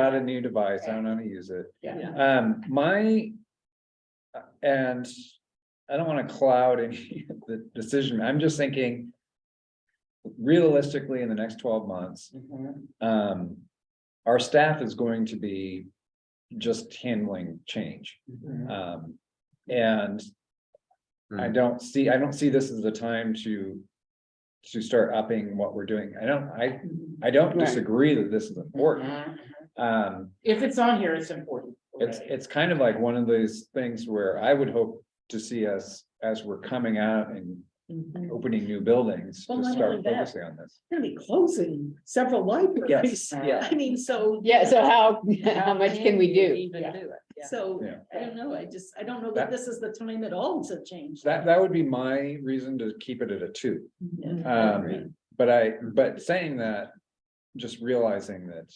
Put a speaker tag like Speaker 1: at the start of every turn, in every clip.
Speaker 1: not a new device. I don't know how to use it.
Speaker 2: Yeah.
Speaker 1: Um, my. uh, And I don't wanna cloud any of the decision. I'm just thinking. Realistically, in the next twelve months,
Speaker 2: Mhm.
Speaker 1: um, our staff is going to be just handling change.
Speaker 2: Mhm.
Speaker 1: Um, and. I
Speaker 3: Hmm.
Speaker 1: don't see, I don't see this as the time to. To start upping what we're doing. I don't, I, I don't
Speaker 2: Right.
Speaker 1: disagree that this is important.
Speaker 2: Mhm.
Speaker 1: Um,
Speaker 2: If it's on here, it's important.
Speaker 1: it's,
Speaker 2: already.
Speaker 1: it's kind of like one of those things where I would hope to see us, as we're coming out and
Speaker 4: Mm-hmm.
Speaker 5: We're
Speaker 1: opening new buildings,
Speaker 5: Well,
Speaker 1: to
Speaker 5: not
Speaker 1: start
Speaker 5: only that.
Speaker 1: focusing on this.
Speaker 5: gonna be closing several libraries.
Speaker 1: yeah.
Speaker 5: I mean, so.
Speaker 4: Yeah, so how, how much can we do?
Speaker 5: Even
Speaker 2: Yeah.
Speaker 5: do it. So,
Speaker 1: Yeah.
Speaker 5: I don't know, I just, I don't know
Speaker 1: That-
Speaker 5: that this is the time at all to change.
Speaker 1: That, that would be my reason to keep it at a two.
Speaker 4: Mm-hmm.
Speaker 5: Yeah.
Speaker 4: agree.
Speaker 1: Um, but I, but saying that, just realizing that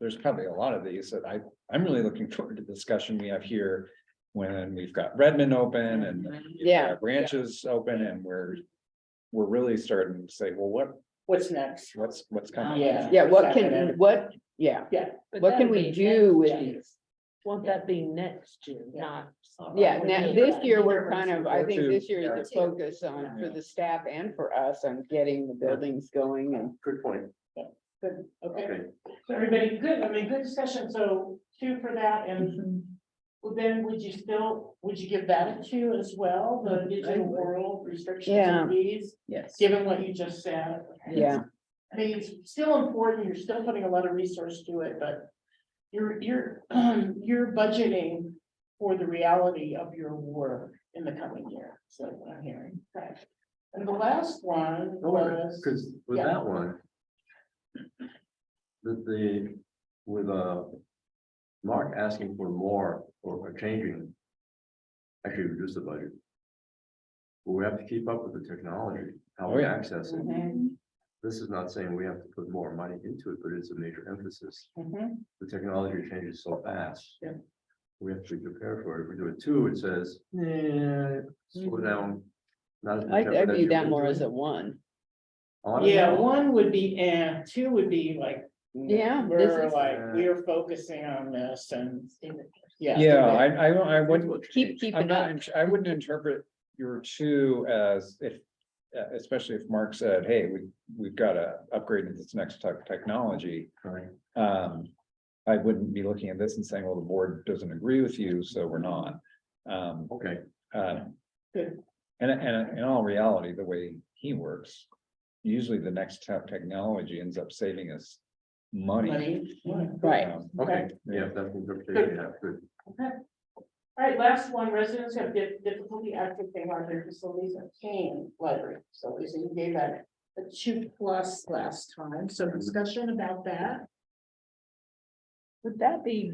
Speaker 1: there's probably a lot of these that I, I'm really looking forward to the discussion we have here when we've got Redmond open and
Speaker 4: Mm-hmm. Yeah.
Speaker 1: uh, branches open and we're, we're really starting to say, well, what,
Speaker 2: What's next?
Speaker 1: what's, what's coming?
Speaker 2: Yeah.
Speaker 4: Yeah, what can, what, yeah, what can we do with these?
Speaker 6: Won't that be next June,
Speaker 2: Yeah.
Speaker 6: not?
Speaker 4: Yeah, now, this year, we're kind of, Um, I think
Speaker 1: Or two.
Speaker 4: this year is the
Speaker 5: Yeah.
Speaker 4: focus on, for the staff and for us, on getting the buildings going and.
Speaker 3: Good point.
Speaker 2: Good, okay.
Speaker 3: Okay.
Speaker 2: So everybody, good, I mean, good discussion, so two for that, and
Speaker 5: Mm-hmm.
Speaker 4: Mm-hmm.
Speaker 2: well, then would you still, would you give that a two as well, the digital world restrictions
Speaker 4: Mm-hmm. Yeah.
Speaker 2: and fees?
Speaker 5: Yes.
Speaker 2: Given what you just said.
Speaker 4: Yeah.
Speaker 2: I think it's still important, you're still putting a lot of resource to it, but you're, you're, you're budgeting for the reality of your work in the coming year, so what I'm hearing. Right. And the last one
Speaker 3: Oh,
Speaker 2: was,
Speaker 3: Because with
Speaker 2: Yeah.
Speaker 3: that one. The, the, with, uh, Mark asking for more or changing. Actually reduce the budget. But we have to keep up with the technology, how
Speaker 1: Oh,
Speaker 3: we
Speaker 1: yeah.
Speaker 3: access it.
Speaker 5: Mm-hmm.
Speaker 2: Mhm,
Speaker 3: This is not saying we have to put more money into it, but it's a major emphasis.
Speaker 2: mhm,
Speaker 3: The technology changes so fast.
Speaker 2: Yeah.
Speaker 3: We have to be prepared for it. If we do it too, it says, yeah, slow down. not as much
Speaker 4: Mm-hmm. I, I
Speaker 3: effort as
Speaker 4: view
Speaker 3: you
Speaker 4: that
Speaker 3: put
Speaker 4: more
Speaker 3: into
Speaker 4: as
Speaker 3: it."
Speaker 4: a one.
Speaker 3: Honestly,
Speaker 2: yeah, one would be, and two would be like.
Speaker 4: Yeah, this
Speaker 2: We're
Speaker 4: is-
Speaker 2: like, we're focusing on this and, yeah.
Speaker 1: Yeah, I, I, don't- I
Speaker 3: that's
Speaker 1: wouldn't,
Speaker 3: what
Speaker 4: Keep,
Speaker 3: changed.
Speaker 4: keep
Speaker 1: I'm
Speaker 4: it
Speaker 1: not,
Speaker 4: up.
Speaker 1: int- I wouldn't interpret your two as if, uh, especially if Mark said, hey, we, we've got to upgrade into this next type of technology.
Speaker 3: Right.
Speaker 1: Um, I wouldn't be looking at this and saying, well, the board doesn't agree with you, so we're not. Um,
Speaker 3: Okay,
Speaker 1: uh,
Speaker 2: Good.
Speaker 1: and, and in all reality, the way he works, usually the next tech technology ends up saving us money.
Speaker 2: Money, yeah.
Speaker 4: Right.
Speaker 1: Um,
Speaker 3: okay,
Speaker 1: Yeah.
Speaker 3: yeah, that's interpretation, yeah, good.
Speaker 2: All right, last one, residents have dif- difficulty accessing our their facilities at Kane Library, so Lisa, you gave that a two plus last time, so discussion about that.
Speaker 6: Would that be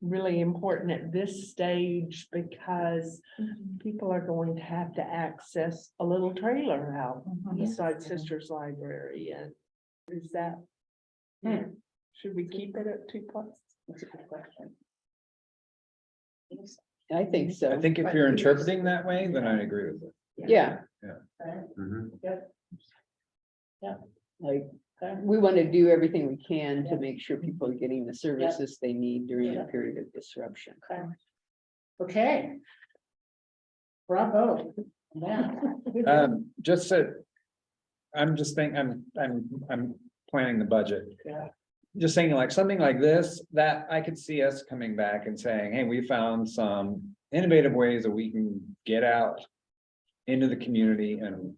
Speaker 6: really important at this stage because
Speaker 2: Mm-hmm.
Speaker 6: people are going to have to access a little trailer out
Speaker 2: Mm-hmm.
Speaker 6: beside Sisters Library and is that?
Speaker 2: Hmm.
Speaker 6: Should we keep it at two plus?
Speaker 2: That's a good question.
Speaker 4: I think
Speaker 1: I
Speaker 4: so.
Speaker 1: think if you're interpreting that way, then I agree with it.
Speaker 4: Yeah,
Speaker 2: Okay,
Speaker 3: Mhm.
Speaker 4: like, uh,
Speaker 2: okay.
Speaker 4: we want to do everything we can to make sure people are getting the services they need during
Speaker 2: Mm-hmm. Yeah.
Speaker 4: a period of disruption.
Speaker 2: Okay. Bravo. Yeah.
Speaker 1: Um, just so. I'm just thinking, I'm, I'm, I'm planning the budget.
Speaker 2: Yeah.
Speaker 1: Just saying like something like this, that I could see us coming back and saying, hey, we found some innovative ways that we can get out. Into the community and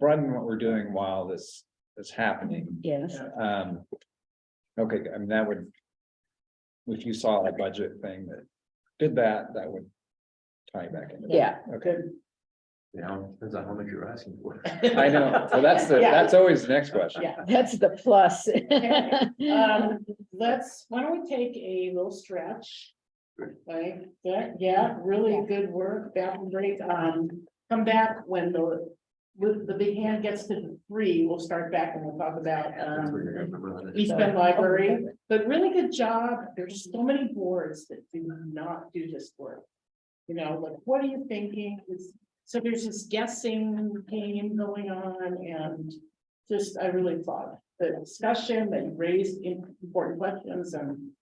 Speaker 1: broaden what we're doing while this is happening.
Speaker 4: Yes.
Speaker 1: Um. Okay, I mean, that would. If you saw a budget thing that did that, that would tie back into. that.
Speaker 4: Yeah,
Speaker 1: Okay.
Speaker 3: You know, depends on how much you're asking for.
Speaker 1: I know, so that's the,
Speaker 2: Yeah.
Speaker 1: that's always the next question.
Speaker 2: Yeah.
Speaker 4: that's the plus.
Speaker 2: Um, let's, why don't we take a little stretch? Like, that, yeah, really good work, bathroom break, um, come back when the, with the big hand gets to three, we'll start back and we'll talk about,
Speaker 3: That's what you're
Speaker 2: um.
Speaker 3: gonna remember that.
Speaker 2: East Bend Library, but really good job, there's so many boards that do not do this work. You know, like, what are you thinking, It's- so there's this guessing game going on and just, I really thought the discussion that you raised important questions and